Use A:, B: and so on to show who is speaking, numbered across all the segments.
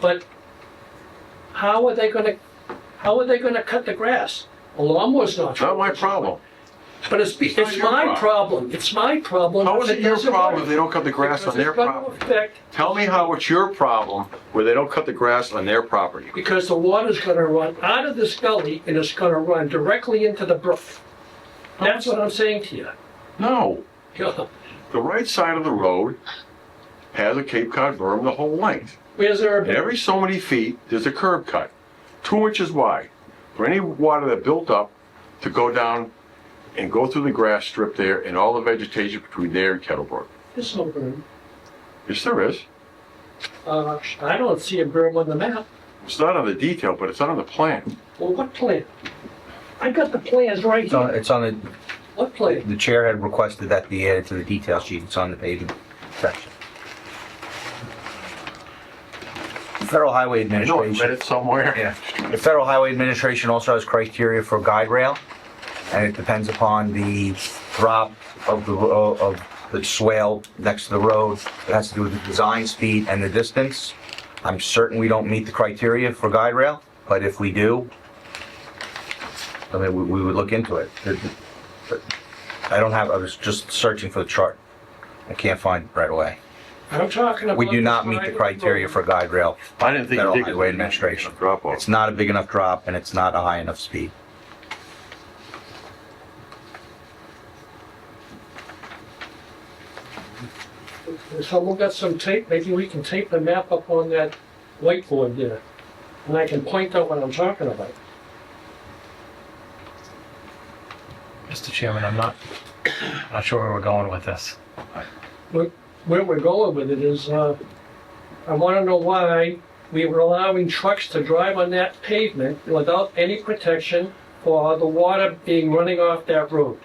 A: But how are they gonna, how are they gonna cut the grass? A lawnmower's not.
B: Not my problem.
A: But it's,
B: not
A: it's
B: your
A: my
B: problem.
A: problem, it's my problem.
B: How
A: if
B: is it your
A: doesn't
B: problem
A: work.
B: if they don't cut the grass
A: Because
B: on their
A: it's gonna
B: property?
A: affect-
B: Tell me how it's your problem where they don't cut the grass on their property.
A: Because the water's gonna run out of this gully and it's gonna run directly into the brook. That's what I'm saying to you.
B: No,
A: You know,
B: the right side of the road has a Cape Cod berm the whole length.
A: Where's there a
B: And every so many feet, there's a curb cut, two inches wide, for any water that built up to go down and go through the grass strip there and all the vegetation between there and Kettlebrook.
A: There's no berm.
B: Yes, there is.
A: Uh, I don't see a berm on the map.
B: It's not on the detail, but it's on the plan.
A: Well, what plan? I got the plans right
C: It's on,
A: here.
C: it's on the,
A: What plan?
C: the chair had requested that be added to the detail sheet, it's on the paving section. The Federal Highway
B: I know I read
C: Administration,
B: it somewhere.
C: yeah, the Federal Highway Administration also has criteria for guide rail, and it depends upon the drop of the, ro- of the swale next to the road, it has to do with the design speed and the distance. I'm certain we don't meet the criteria for guide rail, but if we do, I mean, we, we would look into it. I don't have, I was just searching for the chart. I can't find it right away.
A: I'm talking about.
C: We do not
A: the
C: meet
A: side
C: the
A: of
C: criteria
A: road.
C: for guide rail.
B: I didn't think. you
C: Federal
B: did.
C: Highway Administration.
B: Drop off.
C: It's not a big enough drop and it's not a high enough speed.
A: If someone got some tape, maybe we can tape the map up on that whiteboard there. And I can point out what I'm talking about.
D: Mr. Chairman, I'm not, not sure where we're going with this.
A: Where we're going with it is, uh, I wanna know why we were allowing trucks to drive on that pavement without any protection for the water being running off that road.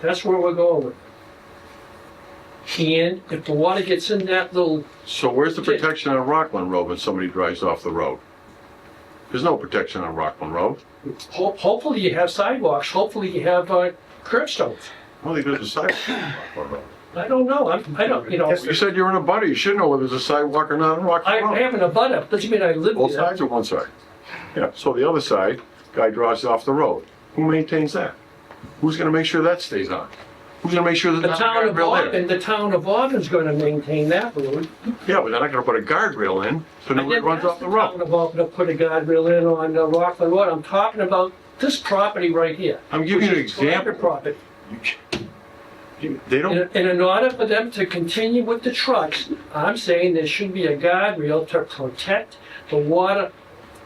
A: That's where we're going with it. And if the water gets in that little
B: So where's the
A: Yeah.
B: protection on Rockland Road when somebody drives off the road? There's no protection on Rockland Road.
A: Ho- Hopefully you have sidewalks, hopefully you have uh, curb stones.
B: Well, there's a sidewalk on Rockland Road.
A: I don't know, I'm, I don't, you know,
B: You said you're in a butter, you should know whether there's a sidewalk or not on
A: I
B: Rockland
A: I
B: Road.
A: have an abutter, doesn't mean I live
B: Both
A: there.
B: sides or one side? Yeah, so the other side, guy drives off the road. Who maintains that? Who's gonna make sure that stays on? Who's gonna make sure
A: The
B: there's not
A: town
B: a
A: of
B: guardrail
A: Auburn, the
B: there?
A: town of Auburn's gonna maintain that road.
B: Yeah, but they're not gonna put a guardrail in, so
A: I
B: nobody
A: didn't
B: runs
A: ask
B: off the road.
A: Town of Auburn to put a guardrail in on uh, Rockland Road, I'm talking about this property right here.
B: I'm giving you an
A: which is private
B: example.
A: Property.
B: They don't,
A: And and in order for them to continue with the trucks, I'm saying there should be a guardrail to protect the water,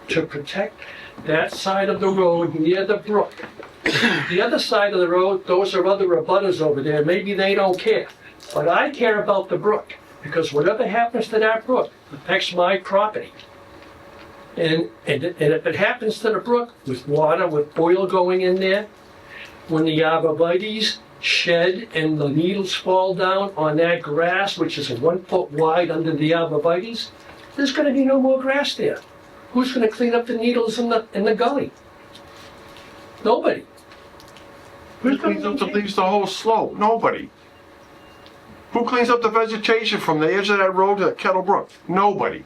A: to protect that side of the road near the brook. The other side of the road, those are other abutters over there, maybe they don't care. But I care about the brook, because whatever happens to that brook affects my property. And, and and if it happens to the brook, with water, with oil going in there, when the arborvitae's shed and the needles fall down on that grass, which is one foot wide under the arborvitae's, there's gonna be no more grass there. Who's gonna clean up the needles in the, in the gully? Nobody.
B: Who cleans up the leaves the whole slope? Nobody. Who cleans up the vegetation from the edge of that road to Kettle Brook? Nobody.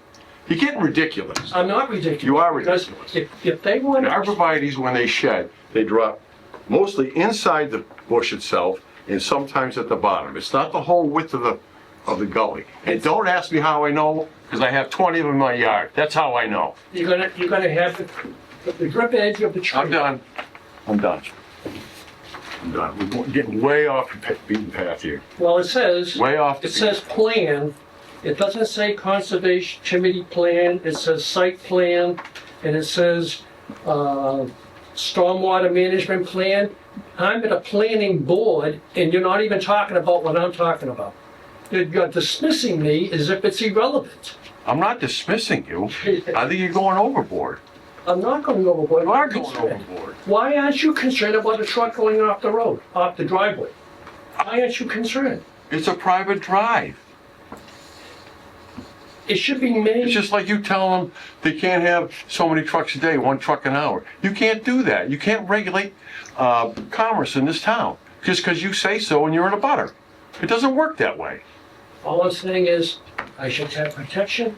B: You're getting ridiculous.
A: I'm not ridiculous.
B: You are
A: because
B: ridiculous.
A: If, if they want,
B: The arborvitae's, when they shed, they drop mostly inside the bush itself and sometimes at the bottom. It's not the whole width of the, of the gully. And don't ask me how I know, because I have 20 of them in my yard. That's how I know.
A: you're gonna, you're gonna have the, the drip edge of the tree.
B: I'm done. I'm done. I'm done. We're going- getting way off the pa- beaten path here.
A: Well, it says.
B: Way off the
A: It
B: beaten
A: says plan, it doesn't say conservation committee plan, it says site plan, and it says, uh, stormwater management plan. I'm at a planning board, and you're not even talking about what I'm talking about. You're dismissing me as if it's irrelevant.
B: I'm not dismissing you. I think you're going overboard.
A: I'm not going overboard.
B: You are going overboard.
A: Why aren't you concerned about a truck going off the road, off the driveway? Why aren't you concerned?
B: It's a private drive.
A: It should be made.
B: It's just like you tell them they can't have so many trucks a day, one truck an hour. You can't do that. You can't regulate uh, commerce in this town just because you say so and you're in a butter. It doesn't work that way.
A: All I'm saying is, I should have protection